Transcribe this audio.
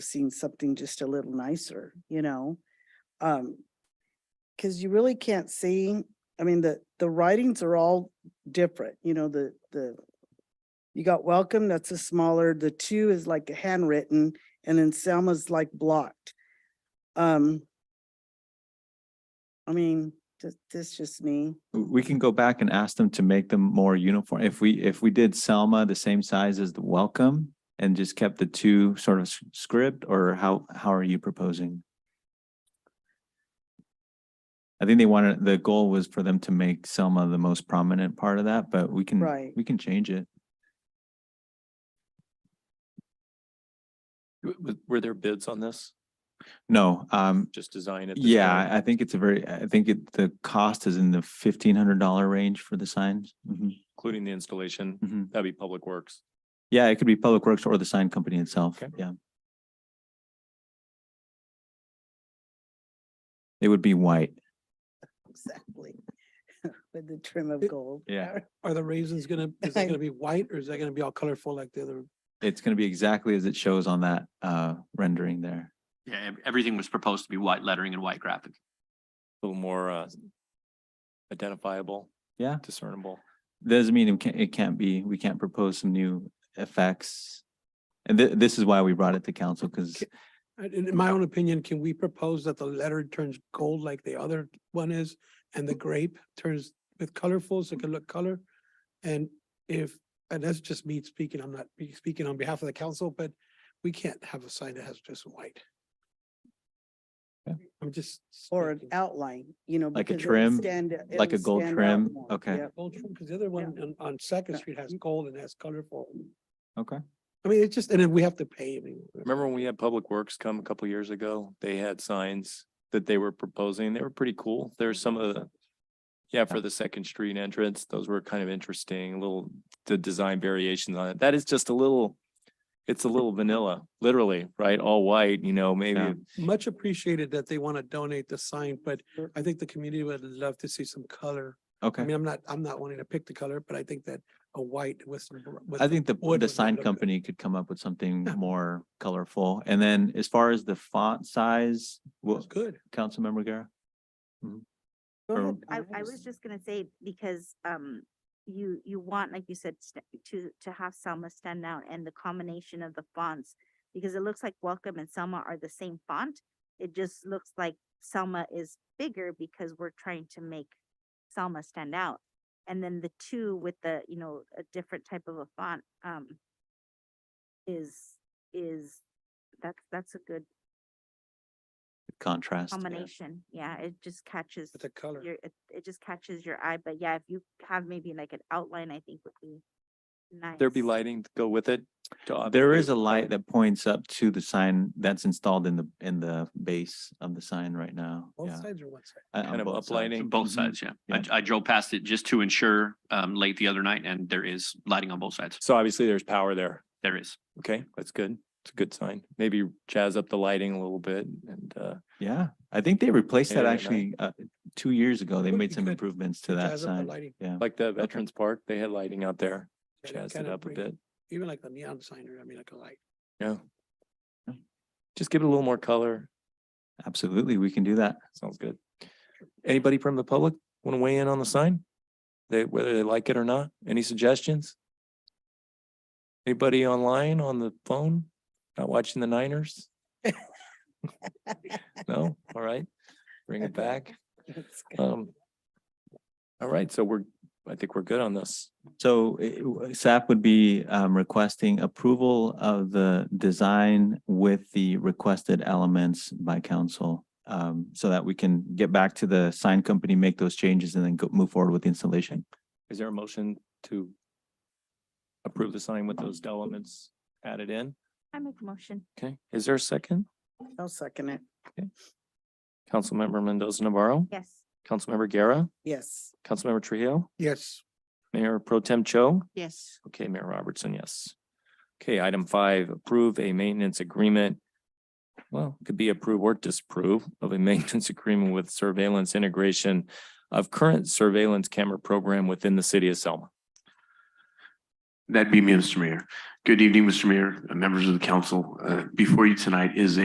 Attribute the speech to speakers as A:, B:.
A: seen something just a little nicer, you know? Um, cause you really can't see, I mean, the, the writings are all different, you know, the, the you got welcome, that's a smaller, the two is like a handwritten, and then Selma's like blocked. Um, I mean, this, this just me.
B: We can go back and ask them to make them more uniform. If we, if we did Selma the same size as the welcome and just kept the two sort of s- script or how, how are you proposing? I think they wanted, the goal was for them to make Selma the most prominent part of that, but we can,
A: Right.
B: we can change it.
C: W- w- Were there bids on this?
B: No, um,
C: Just design it? this
B: yeah,
C: way?
B: I- I think it's a very, I think it, the cost is in the fifteen hundred dollar range for the signs. Mhm,
C: Including the installation,
B: mhm.
C: that'd be Public Works.
B: Yeah, it could be Public Works or the sign company itself,
C: Okay.
B: yeah. It would be white.
A: Exactly. With the trim of
D: It-
A: gold.
B: Yeah.
D: Are the raisins gonna, is that gonna be white or is that gonna be all colorful like the other?
B: It's gonna be exactly as it shows on that uh rendering there.
E: Yeah, ev- everything was proposed to be white lettering and white graphic.
C: A little more uh, identifiable,
B: Yeah,
C: discernible.
B: doesn't mean it can't, it can't be, we can't propose some new effects. And thi- this is why we brought it to council, because
D: Ca- In in my own opinion, can we propose that the letter turns gold like the other one is and the grape turns with colorful so it can look color? And if, and that's just me speaking, I'm not be- speaking on behalf of the council, but we can't have a sign that has just white.
B: Yeah.
D: I'm just.
A: Or an
D: speaking.
A: outline, you know.
B: Like a
A: because it'll
B: trim,
A: stand-
B: like a
A: it'll
B: gold
A: stand out
B: trim,
A: more.
B: okay.
A: Yep.
D: Gold trim, because the other one on, on Second Street has gold and has colorful.
B: Okay.
D: I mean, it's just, and then we have to pay. I mean,
C: Remember when we had Public Works come a couple years ago? They had signs that they were proposing. They were pretty cool. There's some of the, yeah, for the Second Street entrance, those were kind of interesting, little, the design variations on it. That is just a little, it's a little vanilla, literally, right? All white, you know,
B: Yeah.
C: maybe
D: much appreciated that they want to donate the sign, but I think the community would love to see some color. I
B: okay.
D: mean, I'm not, I'm not wanting to pick the color, but I think that a white with some. br- with
B: I
D: some
B: think the,
D: wood
B: the
D: would
B: sign
D: look good.
B: company could come up with something
D: Yeah.
B: more colorful. And then as far as the font size,
D: That's
B: what,
D: good.
B: Councilmember Guerra?
A: Go
B: Or-
A: ahead,
F: I,
A: Donna,
F: I
A: just-
F: was just gonna say, because, um, you, you want, like you said, st- to, to have Selma stand out and the combination of the fonts. Because it looks like Welcome and Selma are the same font. It just looks like Selma is bigger because we're trying to make Selma stand out. And then the two with the, you know, a different type of a font, um, is, is, that's, that's a good
B: Contrast.
F: combination. Yeah, it just catches
D: With the color.
F: your, it, it just catches your eye, but yeah, if you have maybe like an outline, I think would be nice.
C: there'd be lighting to go with it. to
B: There
C: obfuscate
B: is a
C: the
B: light that points up to the sign that's installed in the, in the base of the sign right now.
D: Both
B: Yeah.
D: sides or one side?
B: Uh, on
C: Kind of
B: both sides.
C: uplighting.
E: Both
B: Mhm.
E: sides, yeah.
B: Yeah.
E: I, I drove past it just to ensure, um, late the other night and there is lighting on both sides.
C: So obviously there's power there.
E: There is.
C: Okay, that's good. It's a good sign. Maybe jazz up the lighting a little bit and uh,
B: Mm-hmm. Yeah, I think they replaced that
C: Yeah, yeah,
B: actually, uh, two years ago. They
D: Would
B: made
D: be
B: some
D: good
B: improvements to that
D: Jazz up the
B: sign.
D: lighting,
B: Yeah,
C: like the Veterans Park, they had lighting out there.
D: and
C: Jazz it
D: kinda
C: up a
D: bring-
C: bit.
D: Even like the neon sign or, I mean, like a light.
C: Yeah.
B: Yeah.
C: Just give it a little more color.
B: absolutely. We can do that.
C: Sounds good. Anybody from the public want to weigh in on the sign? They, whether they like it or not? Any suggestions? Anybody online on the phone? Not watching the Niners? No? All right. Bring it back.
A: That's good.
C: Um. All right, so we're, I think we're good on this.
B: So eh, w- SAP would be um, requesting approval of the design with the requested elements by council. um, So that we can get back to the sign company, make those changes and then go, move forward with the installation.
C: Is there a motion to approve the sign with those elements added in?
F: I make a motion.
C: Okay, is there a second?
A: I'll second it.
C: Councilmember Mendoza Navarro,
F: Yes,
C: Councilmember Guerra,
A: Yes.
C: Councilmember Trillo,
D: Yes,
C: Mayor Pro Tem Cho.
A: Yes.
C: Okay, Mayor Robertson, yes. Okay, item five, approve a maintenance agreement. Well, it could be approve or disapprove of a maintenance agreement with surveillance integration of current surveillance camera program within the city of Selma.
E: That'd be me, Mr. Mayor. Good evening, Mr. Mayor, uh, members of the council. Uh, Before you tonight is